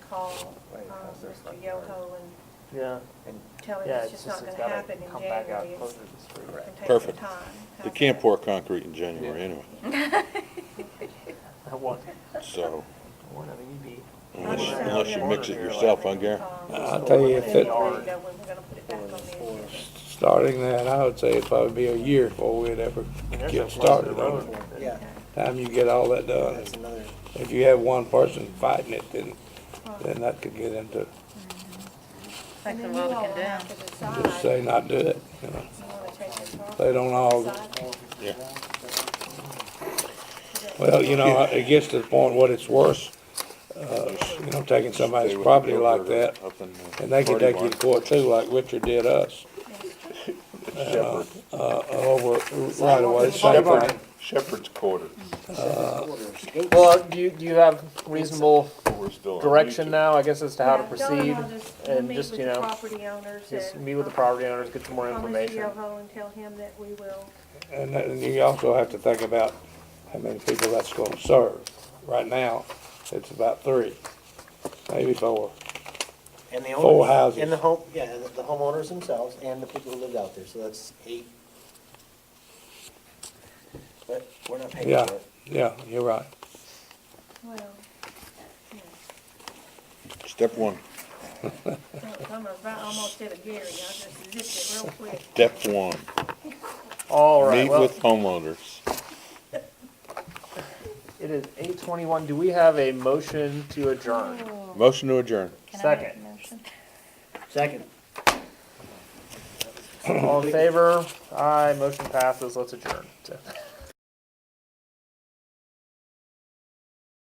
call um, Right, how's this Mr. like Yoho work? and Yeah. And tell him Yeah, it's just not going it's to gotta happen in Come back out January. It's closer to the street. going to take some Perfect. time. You How's can't that? pour concrete in January anyway, I want, so one of you be. unless, Not unless you sure. mix it Yeah. yourself, I guarantee. Um, I'll tell you, if it, we already know when we're gonna put it back on the agenda. starting that, I would say it'd probably be a year before we'd ever get started on it. Yeah, Time you get all that done. that's another, If you have one person fighting it, then, then that could get into, And then you all will have to decide, just say not do it, you know. you wanna take this off? They don't all, Decide. Yeah. well, you know, it gets to the point what it's worth, uh, you know, taking somebody's property like that. And they could take you to court too, like Richard did us, Shepherd, uh, over, right away, same thing. Shepherd's quarter. uh, Well, do you, do you have reasonable We're still on YouTube. direction now, I guess, as to how to Yeah, Don proceed? and I'll just- we'll And meet just, with you the know, property owners just and, meet with the um, property owners, get some more call Mr. information. Yoho and tell him that we will, And then you also have to think about how many people that's gonna serve. Right now, it's about three, maybe four. and the Full owners, houses. and the home, yeah, and the homeowners themselves and the people who lived out there, so that's eight. But we're not paying Yeah, for it. yeah, you're right. well, yeah. Step one, I'm about, almost did a Gary, I just zipped it real quick. step one, All right, meet well, with homeowners. it is eight twenty-one. Do we have a motion to adjourn? Oh, Motion to adjourn. Second, Second. all in favor? Aye, motion passes. Let's adjourn.